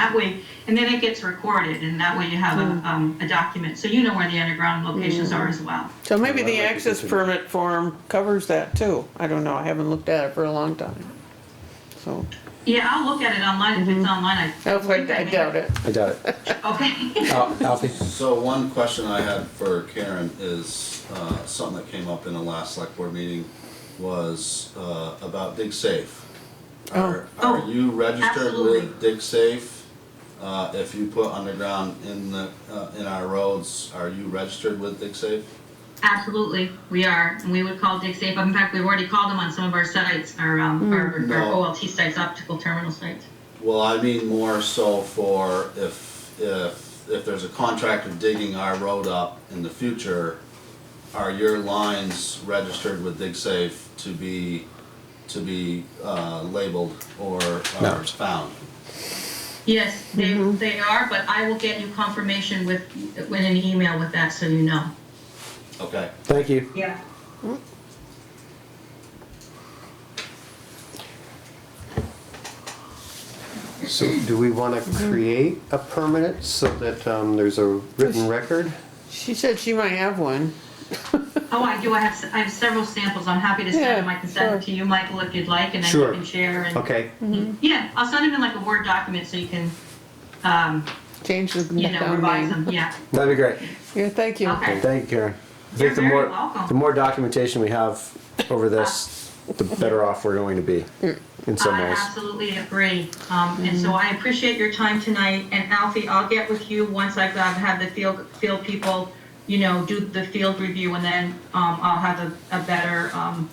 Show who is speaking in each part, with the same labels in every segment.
Speaker 1: that way, and then it gets recorded, and that way you have
Speaker 2: Hmm.
Speaker 1: a, um, a document, so you know where the underground locations are as well.
Speaker 2: So maybe the
Speaker 3: Well, I like
Speaker 2: access
Speaker 3: it.
Speaker 2: permit form covers that too. I don't know, I haven't looked at it for a long time. So,
Speaker 1: Yeah, I'll look at it online, if it's
Speaker 2: Hmm.
Speaker 1: online, I.
Speaker 2: I I doubt it.
Speaker 3: I doubt it.
Speaker 1: Okay.
Speaker 3: Al- Alfie?
Speaker 4: So one question I had for Karen is, uh, something that came up in the last select board meeting was, uh, about DigSafe. Are,
Speaker 1: Oh.
Speaker 4: are you registered
Speaker 1: Absolutely.
Speaker 4: with DigSafe? Uh, if you put underground in the, uh, in our roads, are you registered with DigSafe?
Speaker 1: Absolutely, we are, and we would call DigSafe, in fact, we've already called them on some of our sites, our,
Speaker 2: Hmm.
Speaker 1: um, our our
Speaker 4: No.
Speaker 1: OLT sites, optical terminal sites.
Speaker 4: Well, I mean more so for if, if, if there's a contractor digging our road up in the future, are your lines registered with DigSafe to be, to be, uh, labeled or,
Speaker 3: No.
Speaker 4: or found?
Speaker 1: Yes, they,
Speaker 2: Hmm.
Speaker 1: they are, but I will get you confirmation with, with an email with that, so you know.
Speaker 4: Okay,
Speaker 3: Thank you.
Speaker 1: Yeah.
Speaker 5: So do we want to create a permanent so that um, there's a written record?
Speaker 2: She said she might have one.
Speaker 1: Oh, I do, I have, s- I have several samples, I'm happy to
Speaker 2: Yeah,
Speaker 1: send them, I can send them
Speaker 2: sure.
Speaker 1: to you, Michael, if you'd like, and then you
Speaker 5: Sure.
Speaker 1: can share and.
Speaker 5: Okay,
Speaker 1: Yeah, I'll send them in like a Word document, so you can, um,
Speaker 2: Change the
Speaker 1: you know,
Speaker 2: down
Speaker 1: revise
Speaker 2: name.
Speaker 1: them, yeah.
Speaker 3: That'd be great.
Speaker 2: Yeah, thank you.
Speaker 1: Okay.
Speaker 3: Thank you, Karen. I
Speaker 1: You're
Speaker 3: think the
Speaker 1: very
Speaker 3: more,
Speaker 1: welcome. Ah.
Speaker 3: the more documentation we have over this, the better off we're going to be in some
Speaker 1: Mm. I
Speaker 3: ways.
Speaker 1: absolutely agree. Um, and so I appreciate your time tonight. And Alfie, I'll get with you once I've, I've had the field, field people, you know, do the field review and then, um, I'll have a, a better, um,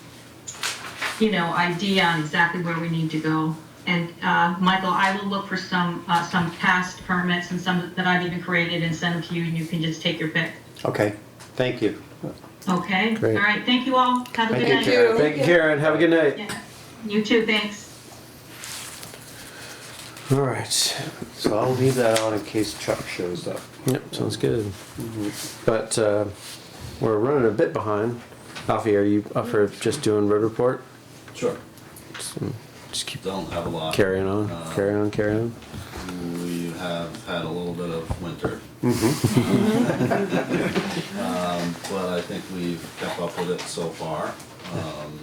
Speaker 1: you know, idea on exactly where we need to go. And, uh, Michael, I will look for some, uh, some past permits and some that I've even created and send them to you and you can just take your pick.
Speaker 5: okay, thank you.
Speaker 1: Okay?
Speaker 3: Great.
Speaker 1: All right. Thank you all. Have a good night.
Speaker 3: Thank you, Karen. Thank you, Karen. Have a good night.
Speaker 1: Yeah. You too. Thanks.
Speaker 3: All right.
Speaker 5: So I'll leave that on Mm-hmm. in case Chuck shows up.
Speaker 3: Yep, sounds good. But uh, we're running a bit behind. Alfie, are you up for just doing road report?
Speaker 4: sure,
Speaker 3: Just keep
Speaker 4: don't have a lot.
Speaker 3: carrying on, carry on, carry on.
Speaker 4: We have had a little bit of winter. Um, But I think we've kept up with it so far. Um,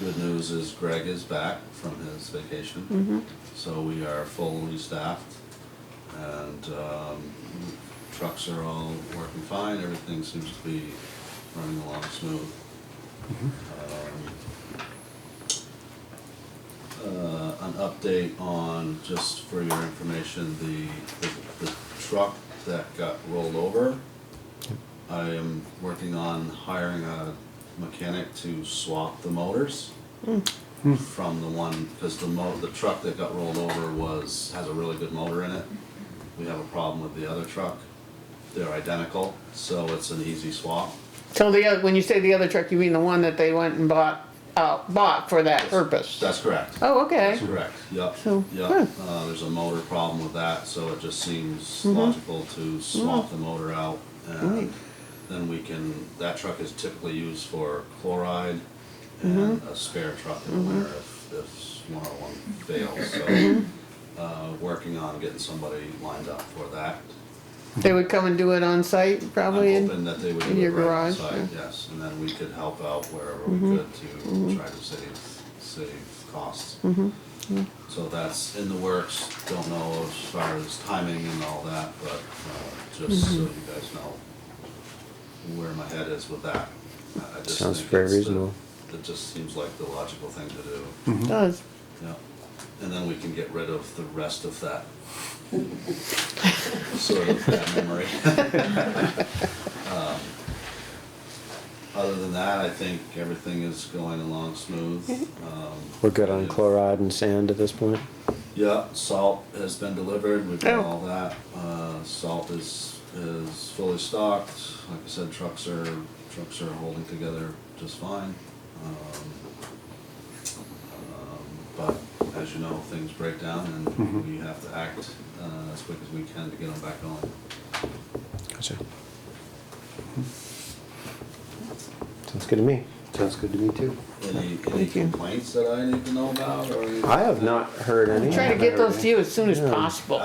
Speaker 4: Good news is Greg is back from his vacation. So we are fully staffed and um, trucks are all working fine. Everything seems to be running along smooth. Um, uh, an update on, just for your information, the, the- the truck that got rolled over. I am working on hiring a mechanic to swap the motors from the one, because the mo, the truck that got rolled over was, has a really good motor in it. We have a problem with the other truck. They're identical, so it's an easy swap.
Speaker 2: So the other, when you say the other truck, you mean the one that they went and bought, uh, bought for that purpose?
Speaker 4: That's correct.
Speaker 2: Oh, okay.
Speaker 4: That's correct, yep,
Speaker 2: So,
Speaker 4: yep.
Speaker 2: hmm.
Speaker 4: Uh, there's a motor problem with that, so it just seems
Speaker 2: Mm-hmm.
Speaker 4: logical to swap the motor out. And then we can, that truck is typically used for chloride and
Speaker 2: Mm-hmm.
Speaker 4: a spare truck in the winter if, if one oh one fails,
Speaker 2: Mm-hmm.
Speaker 4: so. Uh, working on getting somebody lined up for that.
Speaker 2: They would come and do it on site probably?
Speaker 4: I'm
Speaker 2: and-
Speaker 4: hoping that they would
Speaker 2: in
Speaker 4: do it
Speaker 2: your
Speaker 4: right
Speaker 2: garage, Mm-hmm.
Speaker 4: outside, yes, and then we could help out wherever we could to try to save, save costs.
Speaker 2: Mm-hmm.
Speaker 4: So that's in the works, don't know as far as timing and all that, but, uh, just
Speaker 2: Mm-hmm.
Speaker 4: so you guys know where my head is with that. I- I just
Speaker 3: Sounds
Speaker 4: think
Speaker 3: very
Speaker 4: it's the-
Speaker 3: reasonable.
Speaker 4: It just seems like the logical thing to do.
Speaker 2: Does.
Speaker 4: Yeah, and then we can get rid of the rest of that. Sort of that memory. Um, Other than that, I think everything is going along smooth. Um,
Speaker 3: We're good on
Speaker 4: yeah.
Speaker 3: chloride and sand at this point.
Speaker 4: Yeah, salt has been delivered, we've done
Speaker 2: Oh.
Speaker 4: all that. Uh, salt is, is fully stocked. Like I said, trucks are, trucks are holding together just fine. Um, um, But as you know, things break down and
Speaker 2: Mm-hmm.
Speaker 4: we have to act uh, as quick as we can to get them back on.
Speaker 3: Gotcha. Sounds good to me.
Speaker 5: Sounds good to me too.
Speaker 4: Any, any
Speaker 2: you.
Speaker 4: complaints that I need to know about or?
Speaker 3: I have not heard any.
Speaker 2: Try to
Speaker 3: Haven't
Speaker 2: get
Speaker 3: heard
Speaker 2: those
Speaker 3: any.
Speaker 2: to you as soon as
Speaker 3: Yeah.
Speaker 2: possible.